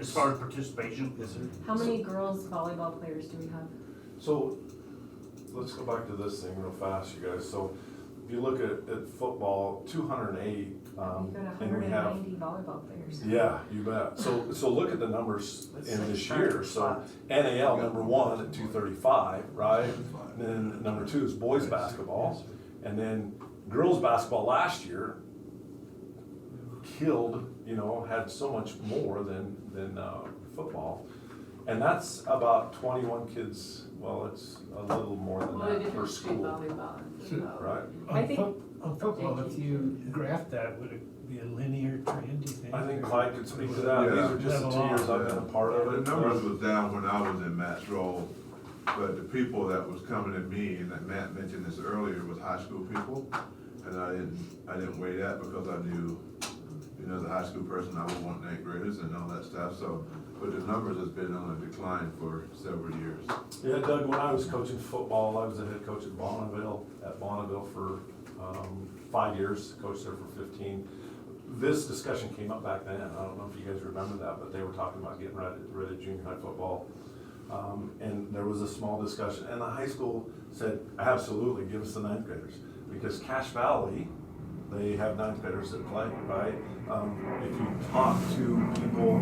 as far as participation. Yes, sir. How many girls volleyball players do we have? So, let's go back to this thing real fast, you guys. So, if you look at, at football, two hundred and eight, um, We've got and we have 190 volleyball players. Yeah, you bet. So, so look at the numbers That's in like this five year. So NAL, number one, at two thirty-five, right? And then number two is boys basketball. And then girls basketball last year killed, you know, had so much more than, than, uh, football. And that's about twenty-one kids, well, it's a little more than Well, the that per difference between school, volleyball and football. right? I On think- fo- on football, if Thank you graph that, would it be a linear trend, do you think? I think Clyde could speak to that. These are just the two years I've been a part of The it. numbers was down when I was in Matt's role, but the people that was coming to me, and that Matt mentioned this earlier, was high school people. And I didn't, I didn't weigh that because I knew, you know, as a high school person, I would want ninth graders and all that stuff, so. But the numbers has been on a decline for several years. Yeah, Doug, when I was coaching football, I was the head coach at Bonneville, at Bonneville for um, five years, coached there for 15. This discussion came up back then, I don't know if you guys remember that, but they were talking about getting rid of, rid of junior high football. Um, And there was a small discussion, and the high school said, absolutely, give us the ninth graders. Because Cache Valley, they have ninth graders that play, right? Um, If you talk to people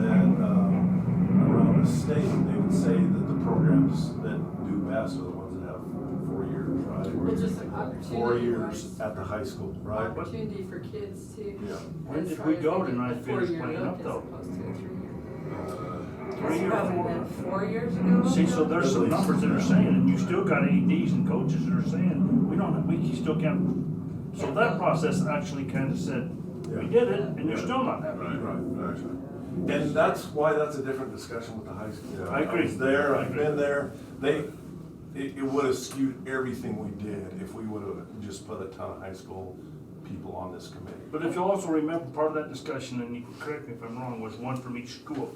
that um, around the state, they would say that the programs that do best are the ones that have four years, Well, right? just an Four opportunity, years right? at the high school, right? But Opportunity for kids to. Yeah. When as did far we as they go to get not the finish four-year playing look up, as though? opposed to a three-year. Three It's or probably four. been four years ago. See, so there's some numbers that are saying, and you still got ADs and coaches that are saying, we don't, we still can't. So that process actually kind of said, we did it, and you're still not happy. Right, right, right. And that's why that's a different discussion with the high school. I I agree. was there, I've I been there, they, it, it would have skewed everything we did if we would have just put a ton of high school people on this committee. But if you also remember, part of that discussion, and you can correct me if I'm wrong, was one from each school.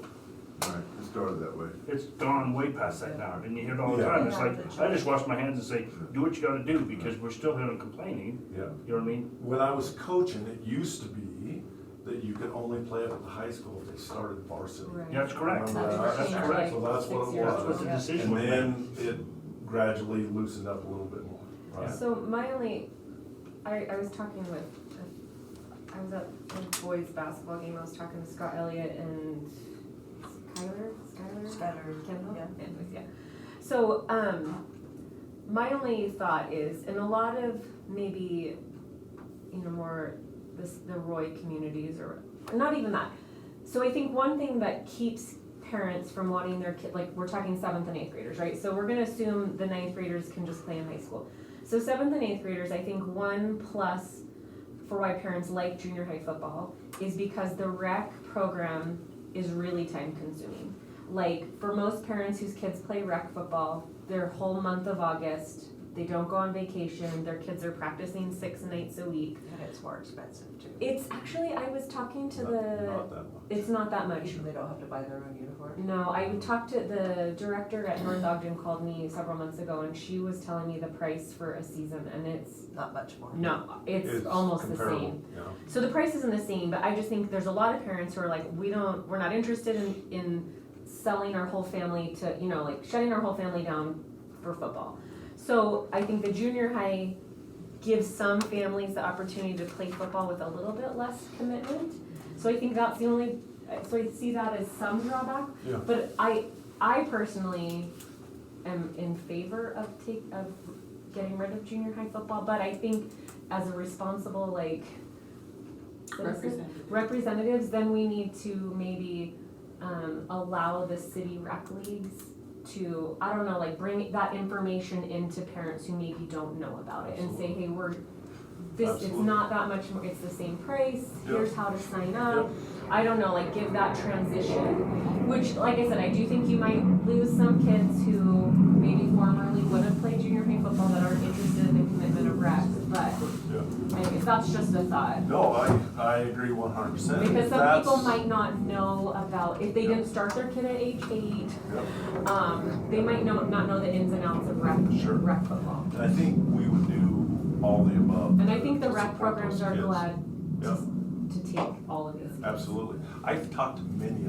Right, it started that way. It's gone way past that now, and you hear it all the time, it's like, I just wash my hands and say, do what you gotta do, because we're still here and complaining, Yeah. you know what I mean? When I was coaching, it used to be that you could only play up at the high school if they started varsity. Right. Yeah, that's correct, Remember that? that's correct, So uh, that's what it Six years that's what was. the Yeah. decision And was made. then it gradually loosened up a little bit more, right? So my only, I, I was talking with, I was at a boys basketball game, I was talking to Scott Elliott and Skylar, Skylar? Skylar, Oh. Kendall? yeah. Anyways, yeah. So, um, my only thought is, in a lot of maybe, you know, more this, the Roy communities or, not even that. So I think one thing that keeps parents from wanting their kid, like, we're talking seventh and eighth graders, right? So we're gonna assume the ninth graders can just play in high school. So seventh and eighth graders, I think one plus for why parents like junior high football is because the rec program is really time consuming. Like for most parents whose kids play rec football, their whole month of August, they don't go on vacation, their kids are practicing six nights a week. And it's more expensive too. It's actually I was talking to Not- the Not that much. it's not that much. Usually they don't have to buy their own uniform. No, I talked to the director at North Ogden called me several months ago and she was telling me the price for a season and it's Not much more. no, it's almost the comparable, same. you know? So the price isn't the same, but I just think there's a lot of parents who are like, we don't, we're not interested in, in selling our whole family to, you know, like shutting our whole family down for football. So I think the junior high gives some families the opportunity to play football with a little bit less commitment. So I think that's the only, so I see that as some drawback. Yeah. But I, I personally am in favor of take, of getting rid of junior high football, but I think as a responsible, like, citizen- Representative. representatives, then we need to maybe, um, allow the city rec leagues to, I don't know, like, bring that information into parents who maybe don't know about it and say, hey, we're, this, it's Absolutely. not that much more, it's the same price, Yeah. here's how to sign up. I don't know, like, give that transition, which, like I said, I do think you might lose some kids who maybe formerly would have played junior high football that aren't interested in the commitment of rec, but Yeah. I guess that's just a thought. No, I, I agree one hundred percent. Because some people might not know about, if they didn't start their kid at age eight, um, they might know, not know the ins and outs of rec, Sure. rec football. I think we would do all the above. And I think the to rec support programs those are kids. glad Yeah. to, to take all of these. Absolutely. I've talked to many